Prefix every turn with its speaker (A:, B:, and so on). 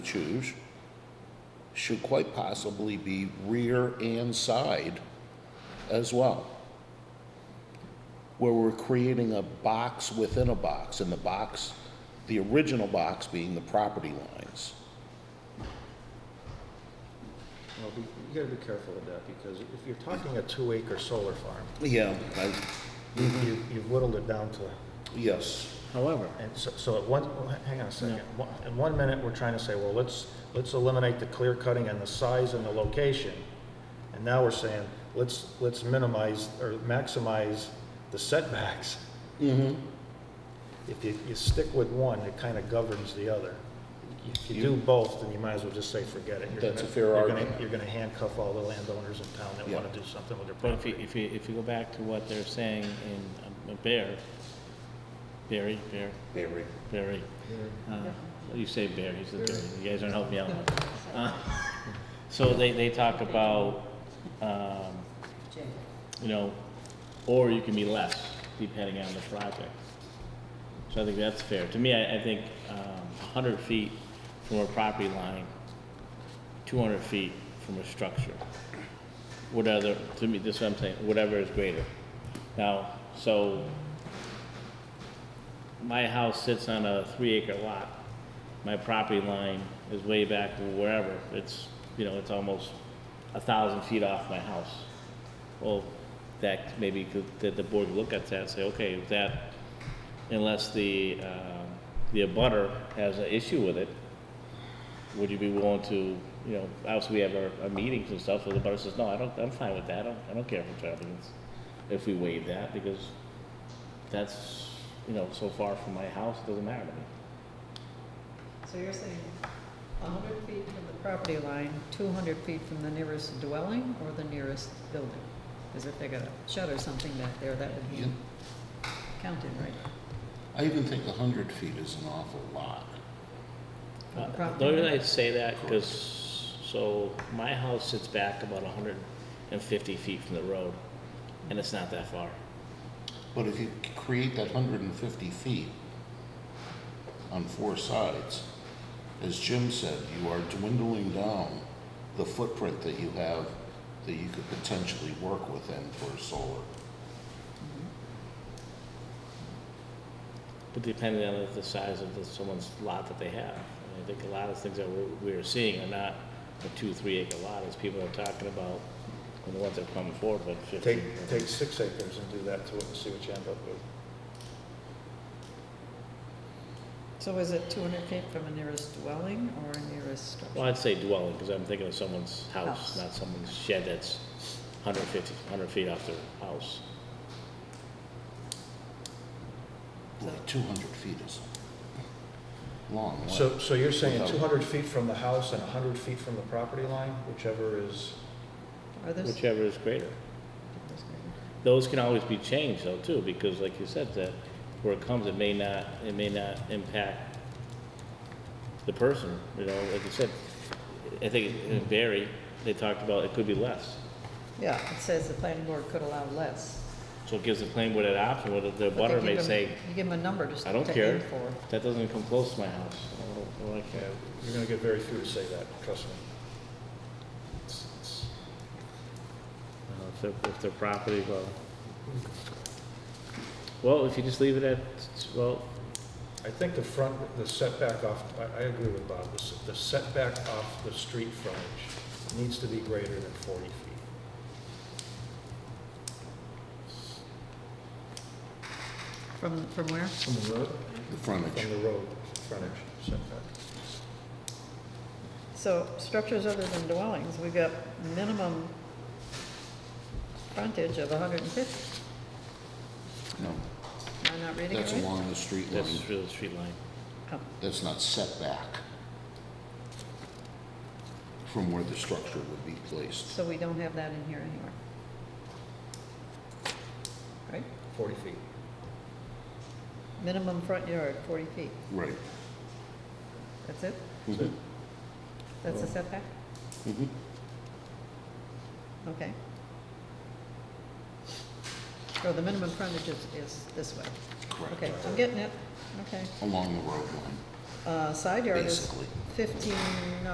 A: choose should quite possibly be rear and side as well. Where we're creating a box within a box, and the box, the original box being the property lines.
B: Well, be- you gotta be careful with that, because if you're talking a two-acre solar farm,
A: Yeah, I,
B: you- you've whittled it down to,
A: yes,
C: However,
B: and so, so at one, well, hang on a second. One- In one minute, we're trying to say, well, let's, let's eliminate the clear cutting and the size and the location. And now we're saying, let's, let's minimize or maximize the setbacks.
A: Mm-hmm.
B: If you, you stick with one, it kind of governs the other. If you do both, then you might as well just say, forget it. You're
A: That's
B: gonna-
A: a fair
B: you're gonna-
A: argument.
B: You're gonna handcuff all the landowners in town that
A: Yeah.
B: wanna do something with their
C: but if
B: property.
C: you, if you, if you go back to what they're saying in um, Bear, Barry, Bear,
A: Barry.
C: Barry. uh, You say Bear, he's a Barry, you guys aren't helping me out much. Uh, So they, they talk about, um, you know, or you can be less depending on the project. So I think that's fair. To me, I, I think, um, hundred feet from a property line, two hundred feet from a structure. Whatever, to me, this is what I'm saying, whatever is greater. Now, so my house sits on a three acre lot. My property line is way back wherever. It's, you know, it's almost a thousand feet off my house. Well, that maybe could, that the board look at that and say, okay, if that, unless the, um, the abutter has an issue with it, would you be willing to, you know, obviously we have our, our meetings and stuff, so the abutter says, no, I don't, I'm fine with that. I don't, I don't care if it's happens, if we waive that, because that's, you know, so far from my house, it doesn't matter to me.
D: So you're saying hundred feet from the property line, two hundred feet from the nearest dwelling or the nearest building? Because if they got a shed or something back there, that would be
A: Yeah.
D: counted, right?
A: I even think a hundred feet is an awful lot.
D: From the
C: Uh,
D: property
C: The only
D: line.
C: reason I say that, because, so, my house sits back about hundred and fifty feet from the road, and it's not that far.
A: But if you c- create that hundred and fifty feet on four sides, as Jim said, you are dwindling down the footprint that you have that you could potentially work within for solar.
C: But depending on the size of the- someone's lot that they have. I mean, I think a lot of things that we're, we're seeing are not a two, three acre lot, as people are talking about, and the ones that are coming forward, but fifteen.
B: Take, take six acres and do that to it and see what you end up with.
D: So is it two hundred feet from a nearest dwelling or a nearest
C: Well,
D: structure?
C: I'd say dwelling, because I'm thinking of someone's house,
D: House.
C: not someone's shed that's 150, 100 feet off their house.
A: Boy, two hundred feet is a long. way.
B: So, so you're saying
A: Without-
B: two hundred feet from the house and hundred feet from the property line, whichever is,
D: Are those?
C: Whichever is greater. Those can always be changed though too, because like you said, that where it comes, it may not, it may not impact the person, you know, like you said. I think in Barry, they talked about it could be less.
D: Yeah, it says the planning board could allow less.
C: So it gives the planning board an option, whether the
D: But they
C: butter
D: give
C: may
D: 'em-
C: say,
D: You give them a number just
C: I
D: to
C: don't care,
D: aim for.
C: that doesn't come close to my house. I don't- I don't like
B: yeah,
C: that.
B: you're gonna get very few to say that, trust me. It's- it's-
C: Uh, If their, if their property, well, well, if you just leave it at, well,
B: I think the front, the setback off, I, I agree with Bob, the s- the setback off the street frontage needs to be greater than forty feet.
D: From, from where?
B: From the road?
A: The frontage.
B: From the road frontage setback.
D: So structures other than dwellings, we've got minimum frontage of 150.
A: No,
D: Am I not reading it
A: that's
D: right?
A: along the street line.
C: that's through the street line.
D: Oh,
A: That's not setback from where the structure would be placed.
D: So we don't have that in here anywhere. Right?
B: Forty feet.
D: Minimum front yard, 40 feet.
A: Right.
D: That's it?
A: Mhm.
D: That's the setback?
A: Mhm.
D: Okay. So the minimum frontage is, is this way.
A: Correct.
D: Okay, I'm getting it. Okay.
A: Along the road line.
D: Uh, side yard is
A: basically.
D: fifteen